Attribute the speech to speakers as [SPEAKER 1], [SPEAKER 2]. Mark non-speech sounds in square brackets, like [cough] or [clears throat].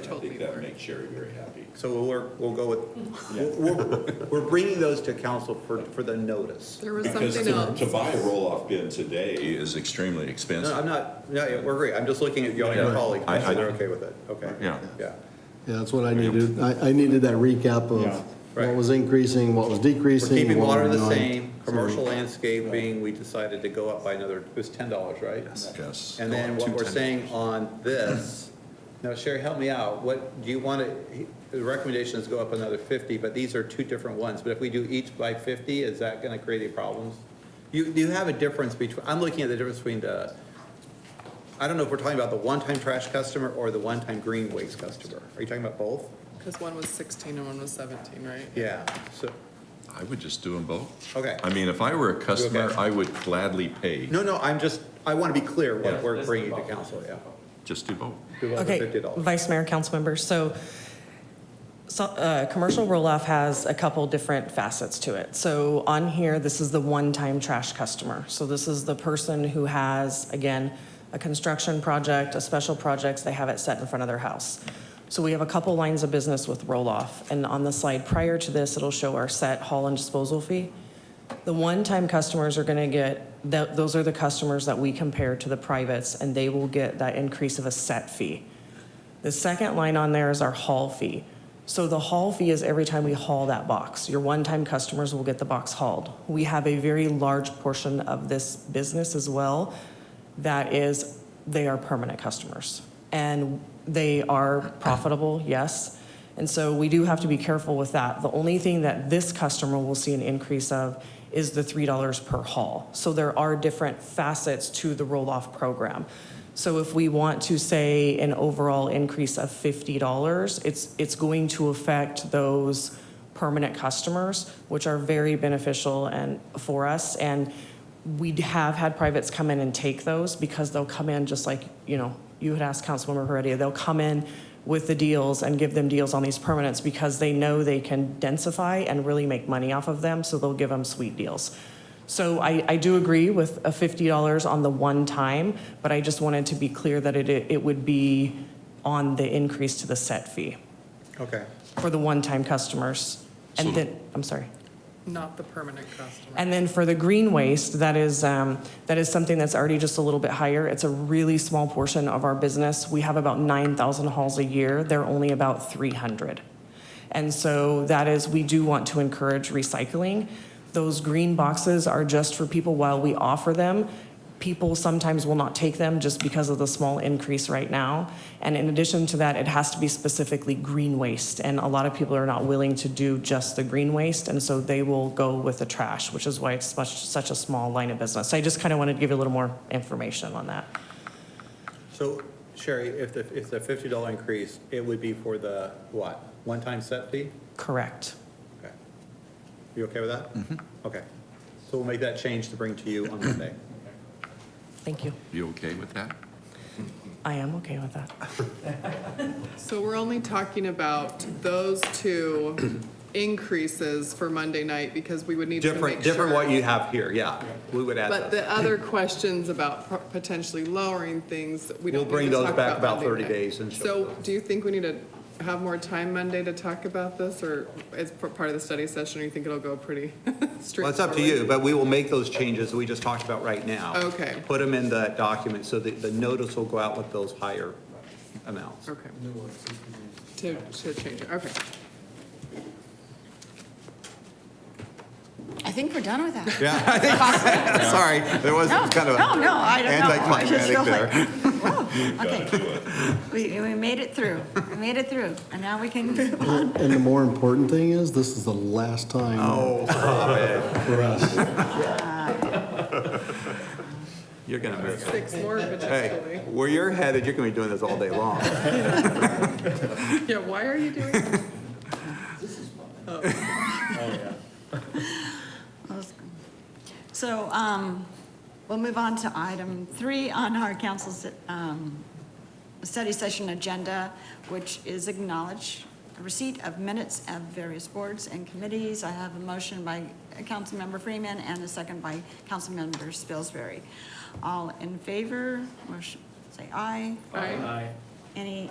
[SPEAKER 1] I think
[SPEAKER 2] totally
[SPEAKER 1] that
[SPEAKER 2] work.
[SPEAKER 1] makes Sherry very happy.
[SPEAKER 3] So we'll work, we'll go with, we're, we're- we're bringing those to council for, for the notice.
[SPEAKER 2] There was
[SPEAKER 1] Because
[SPEAKER 2] something
[SPEAKER 1] to,
[SPEAKER 2] else.
[SPEAKER 1] to buy a roll-off bin today is extremely
[SPEAKER 3] No,
[SPEAKER 1] expensive.
[SPEAKER 3] I'm not, no, yeah, we're great, I'm just looking at you and your
[SPEAKER 1] Yeah.
[SPEAKER 3] colleagues,
[SPEAKER 1] I- I-
[SPEAKER 3] they're okay with it, okay?
[SPEAKER 1] Yeah.
[SPEAKER 3] Yeah,
[SPEAKER 4] Yeah, that's what I needed. I, I needed that recap
[SPEAKER 5] Yeah.
[SPEAKER 4] of
[SPEAKER 3] Right.
[SPEAKER 4] what was increasing, what was
[SPEAKER 3] we're
[SPEAKER 4] decreasing.
[SPEAKER 3] keeping
[SPEAKER 4] what
[SPEAKER 3] water
[SPEAKER 4] was
[SPEAKER 3] the
[SPEAKER 4] not.
[SPEAKER 3] same, commercial landscaping, we decided to go up by another, it was ten dollars, right?
[SPEAKER 1] Yes. Oh,
[SPEAKER 3] And then what we're saying on this, now Sherry, help me out, what, do you want to, the recommendation is go up another fifty, but these are two different ones, but if we do each by fifty, is that going to create any problems? You, you have a difference between, I'm looking at the difference between the, I don't know if we're talking about the one-time trash customer or the one-time green waste customer. Are you talking about both?
[SPEAKER 2] Because one was 16 and one was 17, right?
[SPEAKER 3] Yeah, so,
[SPEAKER 1] I would just do them both.
[SPEAKER 3] Okay.
[SPEAKER 1] I mean, if I were a customer,
[SPEAKER 3] Okay.
[SPEAKER 1] I would gladly pay,
[SPEAKER 3] no, no, I'm just, I want to be clear
[SPEAKER 1] Yeah.
[SPEAKER 3] what we're bringing to council, yeah.
[SPEAKER 1] just do both.
[SPEAKER 3] Do over
[SPEAKER 6] Okay,
[SPEAKER 3] $50.
[SPEAKER 6] Vice Mayor, council members, so, so, uh, commercial roll-off has a couple different facets to it. So on here, this is the one-time trash customer. So this is the person who has, again, a construction project, a special projects, they have it set in front of their house. So we have a couple lines of business with roll-off, and on the slide prior to this, it'll show our set haul and disposal fee. The one-time customers are gonna get, that, those are the customers that we compare to the privates, and they will get that increase of a set fee. The second line on there is our haul fee. So the haul fee is every time we haul that box. Your one-time customers will get the box hauled. We have a very large portion of this business as well that is, they are permanent customers. And they are profitable, yes. And so we do have to be careful with that. The only thing that this customer will see an increase of is the $3 per haul. So there are different facets to the roll-off program. So if we want to say an overall increase of $50, it's, it's going to affect those permanent customers, which are very beneficial and, for us. And we have had privates come in and take those because they'll come in just like, you know, you had asked Councilmember Heredia, they'll come in with the deals and give them deals on these permanents because they know they can densify and really make money off of them, so they'll give them sweet deals. So I, I do agree with a fifty dollars on the one time, but I just wanted to be clear that it, it would be on the increase to the set fee
[SPEAKER 3] Okay,
[SPEAKER 6] for the one-time customers.
[SPEAKER 1] So-
[SPEAKER 6] And then, I'm sorry.
[SPEAKER 2] Not the permanent customer.
[SPEAKER 6] And then for the green waste, that is, um, that is something that's already just a little bit higher. It's a really small portion of our business. We have about 9,000 hauls a year. They're only about 300. And so that is, we do want to encourage recycling. Those green boxes are just for people while we offer them. People sometimes will not take them just because of the small increase right now. And in addition to that, it has to be specifically green waste. And a lot of people are not willing to do just the green waste, and so they will go with the trash, which is why it's much, such a small line of business. So I just kind of wanted to give you a little more information on that.
[SPEAKER 3] So Sherry, if the, if the fifty dollar increase, it would be for the what? One-time set fee?
[SPEAKER 6] Correct.
[SPEAKER 3] Okay. You okay with that? Okay. So we'll make that change to bring to you on Monday.
[SPEAKER 6] Thank you.
[SPEAKER 1] You okay with that?
[SPEAKER 6] I am okay with that.
[SPEAKER 2] So we're only talking about those
[SPEAKER 3] [clears throat]
[SPEAKER 2] two increases for Monday night because we would need to make sure.
[SPEAKER 3] Different, different what you have here, yeah. We would
[SPEAKER 2] But
[SPEAKER 3] add those.
[SPEAKER 2] the other questions about pro- potentially lowering things, we
[SPEAKER 3] We'll
[SPEAKER 2] don't
[SPEAKER 3] bring
[SPEAKER 2] need to
[SPEAKER 3] those
[SPEAKER 2] talk
[SPEAKER 3] back
[SPEAKER 2] about
[SPEAKER 3] about 30
[SPEAKER 2] Monday night.
[SPEAKER 3] days and show
[SPEAKER 2] So
[SPEAKER 3] them.
[SPEAKER 2] do you think we need to have more time Monday to talk about this or as p- part of the study session, or you think it'll go pretty [laughs] straightforward?
[SPEAKER 3] Well, it's up to you, but we will make those changes that we just talked about right now.
[SPEAKER 2] Okay.
[SPEAKER 3] Put them in the document so that the notice will go out with those higher amounts.
[SPEAKER 2] Okay. [laughs] To, to change it, okay.
[SPEAKER 7] I think we're done with that.
[SPEAKER 3] Yeah, I think, sorry, there was
[SPEAKER 7] No,
[SPEAKER 3] kind of
[SPEAKER 7] no, no, I don't know. I
[SPEAKER 3] anticlimactic
[SPEAKER 7] just feel
[SPEAKER 3] there. [laughs]
[SPEAKER 7] like-
[SPEAKER 1] Gotta
[SPEAKER 7] Okay,
[SPEAKER 1] do it.
[SPEAKER 7] we, we made it through, we made it through, and now we can move on.
[SPEAKER 4] And the more important thing is, this is the last time
[SPEAKER 3] Oh, stop it.
[SPEAKER 4] for us.
[SPEAKER 3] You're gonna miss it.
[SPEAKER 2] Six more
[SPEAKER 3] Hey,
[SPEAKER 2] potentially.
[SPEAKER 3] where you're headed, you're gonna be doing this all day long.
[SPEAKER 2] [laughs] Yeah, why are you doing that?
[SPEAKER 7] So, um, we'll move on to item three on our council's, um, study session agenda, which is acknowledge receipt of minutes of various boards and committees. I have a motion by Councilmember Freeman and a second by Councilmember Spilsbury. All in favor, motion, say aye.
[SPEAKER 2] Aye.
[SPEAKER 7] Any